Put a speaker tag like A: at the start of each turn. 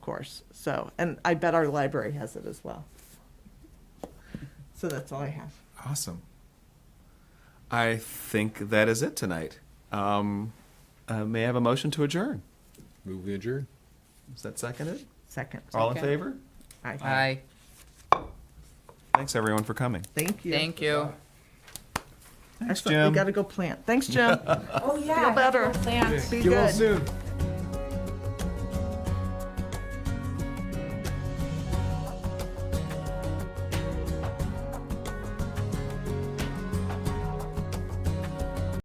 A: course. So, and I bet our library has it as well. So that's all I have.
B: Awesome. I think that is it tonight. Um, uh, may I have a motion to adjourn?
C: Move we adjourn.
B: Is that seconded?
A: Second.
B: All in
D: Second.
B: favor?
A: Aye.
D: Aye.
B: Thanks everyone for coming.
A: Thank you.
D: Thank you.
A: Excellent.
B: Jim.
A: We got to go plant. Thanks, Jim.
E: Oh, yeah.
A: Feel better.
E: Plants.
A: Be good.
C: soon.